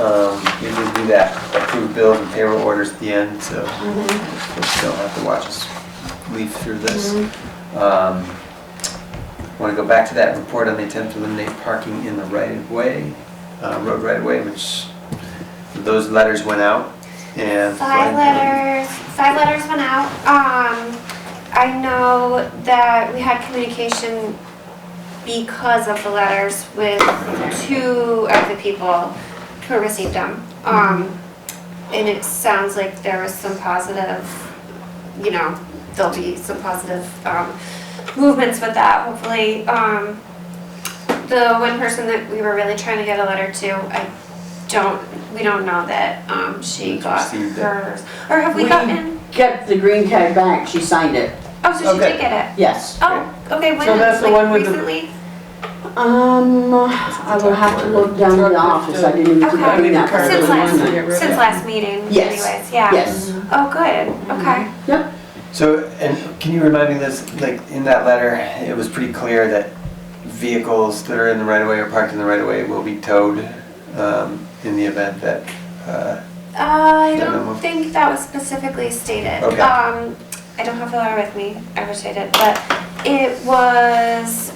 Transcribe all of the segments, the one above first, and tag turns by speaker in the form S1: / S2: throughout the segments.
S1: Um, usually do that, approve bills and payroll orders at the end, so
S2: Mhm.
S1: folks don't have to watch us leaf through this.
S2: Mhm.
S1: Um, Want to go back to that report on the attempt to eliminate parking in the right-of-way, uh, road right-of-way, which those letters went out and.
S2: Five letters, five letters went out. Um, I know that we had communication because of the letters with two of the people who received them. Um, and it sounds like there was some positive, you know, there'll be some positive, um, movements with that, hopefully. Um, the one person that we were really trying to get a letter to, I don't, we don't know that, um, she
S1: She's
S2: got
S1: received it.
S2: hers. Or have we
S3: We-
S2: gotten,
S3: Get the green tag back, she signed it,
S2: oh, so she
S1: Okay.
S2: did get it.
S3: yes.
S2: Oh, okay, when,
S3: So that's the one
S2: like
S3: with the-
S2: recently?
S3: Um, I will have to look down in the office, I didn't even think
S2: Okay.
S3: of doing that. for
S2: Since
S3: the
S2: last-
S3: one.
S2: Since last meeting
S3: Yes.
S2: anyways, yeah.
S3: Yes,
S2: Oh, good,
S3: Mm-hmm.
S2: okay.
S1: So, and can you remind me, Liz, like, in that letter, it was pretty clear that vehicles that are in the right-of-way or parked in the right-of-way will be towed um, in the event that, uh,
S2: Uh, I
S1: Yeah,
S2: don't
S1: no.
S2: think that was specifically stated.
S1: Okay.
S2: Um, I don't have the letter with me, I wish I did, but it was,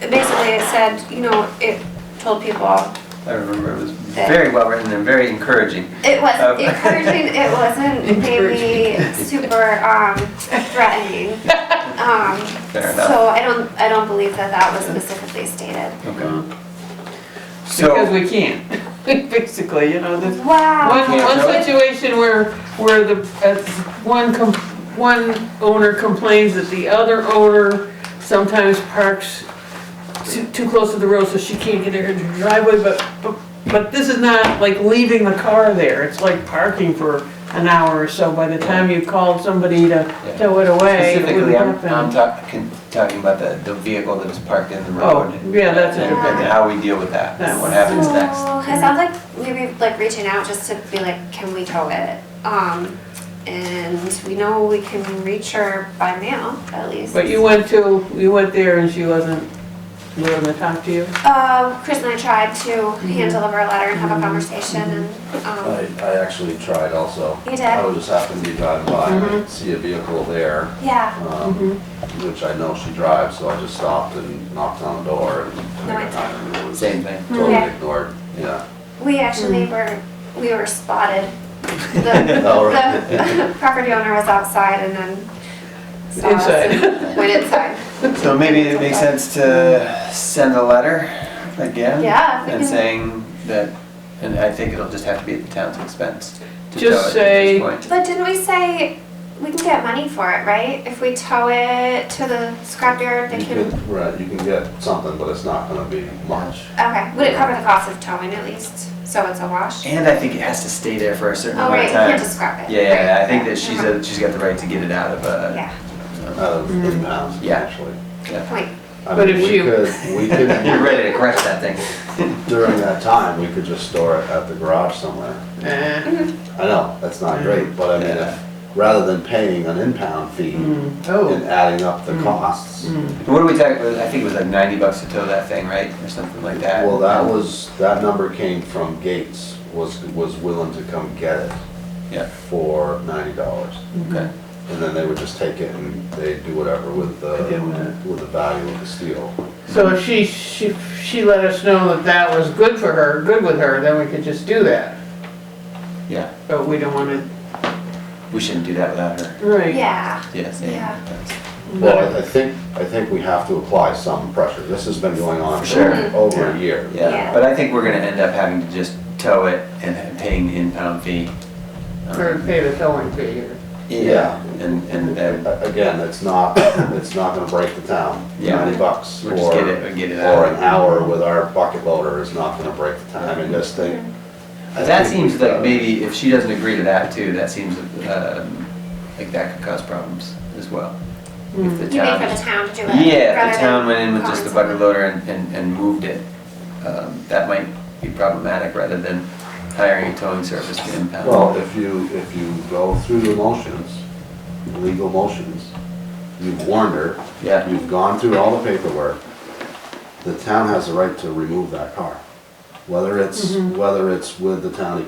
S2: basically it said, you know, it told people,
S1: I remember it was very well-written and very encouraging.
S2: it was
S1: Um.
S2: encouraging, it wasn't maybe super, um, threatening. Um,
S1: Fair enough.
S2: so I don't, I don't believe that that was specifically stated.
S1: Okay.
S4: Because
S1: So,
S4: we can't, basically, you know, there's
S2: Wow.
S4: one, one
S1: Yeah.
S4: situation where, where the, uh, one, com- one owner complains that the other owner sometimes parks too, too close to the road, so she can't get her into her driveway, but, but, but this is not like leaving the car there, it's like parking for an hour or so, by the time you called somebody to tow it away, it wouldn't
S1: specifically, I'm, I'm
S4: happen.
S1: talking, talking about the, the vehicle that is parked in the
S4: Oh,
S1: road.
S4: yeah, that's it,
S1: And and how we deal with that, and what happens next.
S2: It sounds like maybe like reaching out just to be like, can we tow it? Um, and we know we can reach her by mail at least.
S4: but you went to, you went there and she wasn't willing to talk to you?
S2: Uh, Chris and I tried to
S4: Mm-hmm.
S2: hand deliver a letter and have a conversation and,
S5: I,
S2: um,
S5: I actually tried also.
S2: you did?
S5: I was just happened to be driving by, and see a vehicle there,
S2: Yeah,
S5: um, which I know she drives, so I just stopped and knocked on the door and.
S2: it's-
S5: and it was
S1: Same thing.
S5: Totally
S2: Okay.
S5: ignored, yeah.
S2: we actually were,
S4: Mm-hmm.
S2: we were spotted. The,
S5: All right.
S2: the property owner was outside and then saw us and went inside.
S1: So maybe it makes sense to send a letter again?
S2: Yeah, if we
S1: And
S2: can-
S1: saying that, and I think it'll just have to be at the town's expense to tow it
S4: Just
S1: at
S4: say-
S1: this point.
S2: But didn't we say we can get money for it, right? If we tow it to the scrapyard, they
S5: You
S2: can.
S5: could, right, you can get something, but it's not gonna be much.
S2: Okay, would it cover the cost of towing at least? So it's a wash?
S1: And I think it has to stay there for a certain
S2: Oh,
S1: amount
S2: right, you
S1: of
S2: can't
S1: time.
S2: just scrap it.
S1: Yeah, I
S2: Right,
S1: think
S2: yeah,
S1: that she's,
S2: never
S1: a- she's got the right to get it out of uh, a,
S2: mind. Yeah,
S5: Out of inbounds,
S1: Yeah.
S5: actually.
S2: point.
S5: I
S4: But
S5: mean,
S4: if
S5: we
S4: you-
S5: could- We
S1: you're
S5: could,
S1: ready to crush that thing.
S5: during that time, we could just store it at the garage somewhere.
S4: Eh.
S5: I know, that's not great, but I mean,
S1: Yeah.
S5: if, rather than paying an impound fee
S4: Mm-hmm.
S5: and
S4: Oh.
S5: adding up the costs,
S1: And What do we talk, I think it was like ninety bucks to tow that thing, right, or something like that?
S5: Well, that was, that number came from Gates, was, was willing to come get
S1: Yeah.
S5: it for ninety dollars.
S1: Okay.
S5: And then they would just take it and they do whatever with the,
S4: They did with
S5: with the value of the steel.
S4: So if she, she, she let us know that that was good for her, good with her, then we could just do that.
S1: Yeah,
S4: But we don't wanna.
S1: we shouldn't do that without her,
S4: Right.
S2: Yeah,
S1: yes.
S2: Yeah.
S4: Mm-hmm.
S5: Well, I- I think, I think we have to apply some pressure. This has been going on for
S1: Sure.
S4: Mm-hmm.
S5: over a year.
S1: Yeah,
S2: Yeah.
S1: but I think we're gonna end up having to just tow it and paying the impound fee. Um,
S4: Or pay the towing fee or.
S1: Yeah, and, and then
S5: A- uh, Again, it's not, it's not gonna break the town.
S1: Yeah.
S5: Ninety bucks
S1: we'll just get
S5: for
S1: it, get it
S5: or an
S1: out.
S5: hour with our bucket loader is not gonna break the time in this thing.
S4: Mm-hmm.
S5: I
S1: That
S5: think
S1: seems
S5: we've
S1: like
S5: got-
S1: maybe if she doesn't agree to that too, that seems, um, like that could cause problems as well. If the
S2: you mean
S1: town.
S2: for the town to do it?
S1: Yeah, if
S2: rather
S1: the town
S2: than
S1: went in with just
S2: calling
S1: the bucket
S2: someone.
S1: loader and, and, and moved it, um, that might be problematic rather than hiring a towing service to impound.
S5: Well, if you, if you go through the motions, legal motions, you've warned her,
S1: Yeah,
S5: you've gone through all the paperwork, the town has the right to remove that car. Whether it's, whether it's with the town